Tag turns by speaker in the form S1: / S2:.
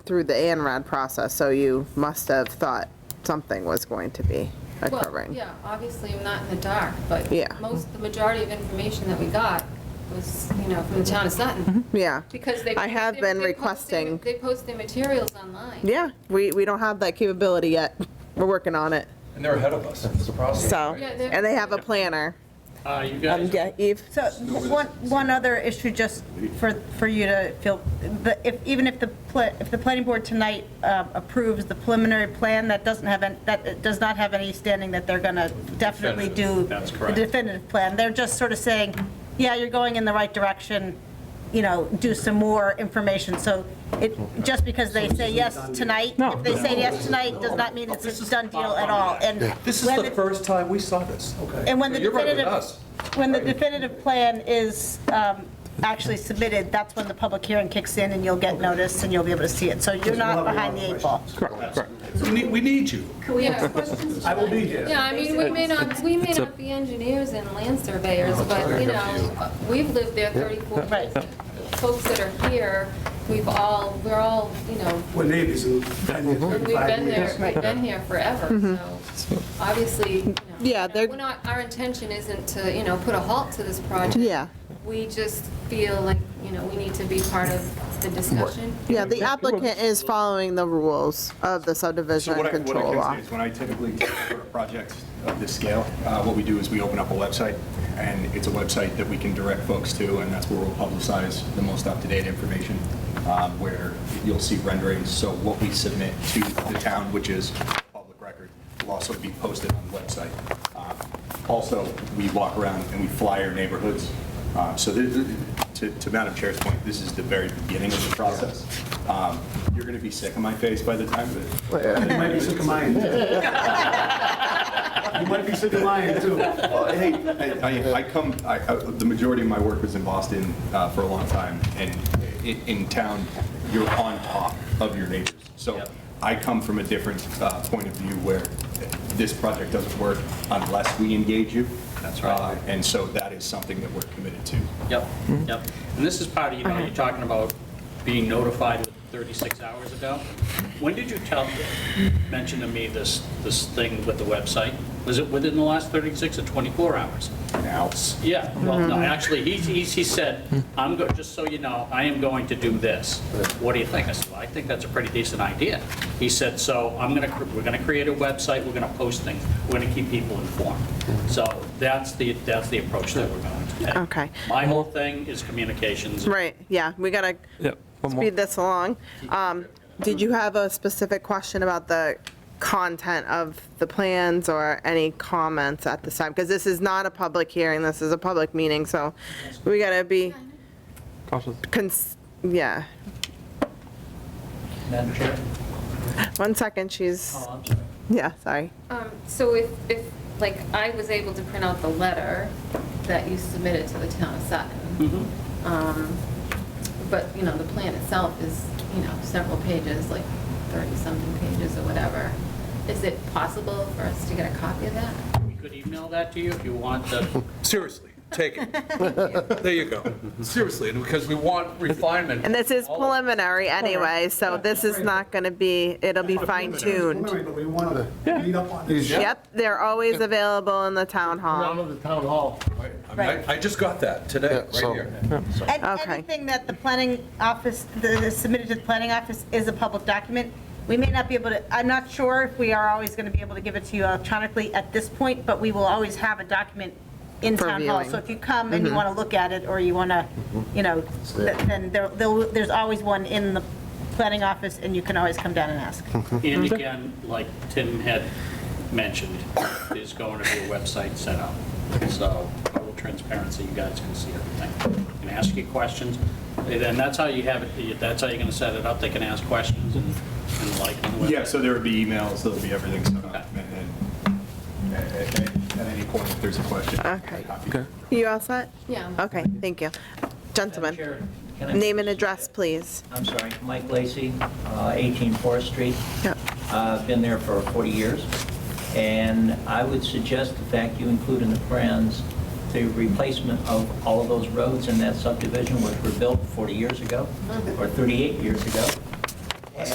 S1: through the ANRAD process, so you must have thought something was going to be
S2: Well,
S1: occurring.
S2: yeah, obviously, I'm not in the dark, but
S1: Yeah.
S2: most, the majority of information that we got was, you know, from the town of Sutton,
S1: Yeah.
S2: because they.
S1: Mm-hmm. I have
S2: they-
S1: been
S2: they post their-
S1: requesting-
S2: They post their materials online.
S1: Yeah, we, we don't have that capability yet. We're working on it,
S3: And they're ahead of us, it's a process.
S1: so,
S2: Yeah, they're-
S1: and they have a planner.
S4: Uh, you
S1: Um,
S4: guys,
S1: yeah, Eve?
S5: So one, one other issue just for, for you to feel, the, if, even if the, pla- if the planning board tonight um, approves the preliminary plan, that doesn't have, any- that it does not have any standing that they're going to definitely do.
S4: Definitive, that's correct.
S5: The definitive plan. They're just sort of saying, yeah, you're going in the right direction, you know, do some more information. So it, just because they say yes tonight, if they say yes tonight, does not mean it's a done deal at all. And
S3: This is
S5: when
S3: the
S5: it-
S3: first time we saw this, okay?
S5: and when the
S3: So You're right with
S5: definitive,
S3: us.
S5: when the definitive plan is um, actually submitted, that's when the public hearing kicks in and you'll get notice and you'll be able to see it. So you're not behind the eight ball.
S3: We need, we need you.
S2: Can we have questions? I will be
S3: here.
S2: Yeah, I mean, we may not, we may not be engineers and land surveyors, but, you know, we've lived there 34 years. Folks that are here, we've all, we're all, you know,
S6: We're neighbors in 10 years,
S2: we've been
S6: 35
S2: there,
S6: years.
S2: we've been here forever, so obviously, you know,
S1: Yeah, they're-
S2: we're not, our intention isn't to, you know, put a halt to this project.
S1: Yeah.
S2: We just feel like, you know, we need to be part of the discussion.
S1: Yeah, the applicant is following the rules of the
S7: So
S1: subdivision
S7: what I, what I
S1: control
S7: can
S1: law.
S7: say is, when I typically take for a project of this scale, uh, what we do is we open up a website, and it's a website that we can direct folks to, and that's where we'll publicize the most up-to-date information, um, where you'll see renderings, so what we submit to the town, which is public record, will also be posted on the website. Uh, Also, we walk around and we fly our neighborhoods, Uh, so th- th- to to Madam Chair's point, this is the very beginning of the process. Um, You're going to be sick of my face by the time that
S6: You might be sick of mine. You might be sick of mine, too.
S7: Well, hey, I, I- I come, I, I- the majority of my work was in Boston uh, for a long time, and in, in town, you're on top of your neighbors. So I come from a different uh, point of view where this project doesn't work unless we engage you. That's right. And so that is something that we're committed to.
S4: yep, yep. And this is part of, you know, you're talking about being notified 36 hours ago. When did you tell, mention to me this, this thing with the website? Was it within the last 36 or 24 hours?
S7: Now,
S4: Yeah, well, no,
S1: Mm-hmm.
S4: actually, he, he he said, I'm, go- just so you know, I am going to do this. What do you think? I said, well, I think that's a pretty decent idea. He said, so I'm gonna, cr- we're gonna create a website, we're gonna post things, we're gonna keep people informed. So that's the, that's the approach that we're going to take.
S1: Okay.
S4: My whole thing is communications.
S1: Right, yeah, we gotta
S8: Yep, one more.
S1: speed this along. Um, Did you have a specific question about the content of the plans or any comments at this time? Because this is not a public hearing, this is a public meeting, so we gotta be,
S8: Cautious.
S1: cons- yeah.
S4: Madam Chair?
S1: One second, she's,
S4: Oh, I'm sorry.
S1: yeah, sorry.
S2: Um, So if, if, like, I was able to print out the letter that you submitted to the town of Sutton,
S4: Mhm.
S2: um, but, you know, the plan itself is, you know, several pages, like 30-something pages or whatever. Is it possible for us to get a copy of that?
S4: We could email that to you if you want the,
S3: Seriously, take it. There you go. Seriously, and because we want refinement.
S1: And this is preliminary anyway, so this is not gonna be, it'll be fine tuned.
S6: Preliminary, But we want to meet up on this.
S1: Yep, they're always available in the town hall.
S9: the town hall.
S3: I mean, I- I just got that today, right
S9: so-
S3: here.
S5: And
S1: Okay.
S5: anything that the planning office, that is submitted to the planning office is a public document. We may not be able to, I'm not sure if we are always going to be able to give it to you electronically at this point, but we will always have a document in
S1: For
S5: town hall.
S1: viewing. Mm-hmm.
S5: So if you come and you want to look at it, or you want to, you know, th- then there- there'll- there's always one in the planning office, and you can always come down and ask.
S4: and again, like Tim had mentioned, there's going to be a website set up. So total transparency, you guys can see everything. Can ask you questions. And then that's how you have it, that's how you're going to set it up. They can ask questions and and like on the website.
S7: yeah, so there would be emails, there'll be everything, so, and, and at at any point, if there's a question.
S1: Okay.
S7: Okay.
S1: You all set?
S2: Yeah.
S1: Okay, thank you.
S10: Madam
S1: Gentlemen,
S10: Chair, can I-
S1: name and address, please.
S10: I'm sorry, Mike Lacy, uh, 18 Forest Street.
S1: Yep.
S10: Uh, I've Been there for 40 years, and I would suggest the fact you include in the plans the replacement of all of those roads in that subdivision, which were built 40 years ago, or 38 years ago,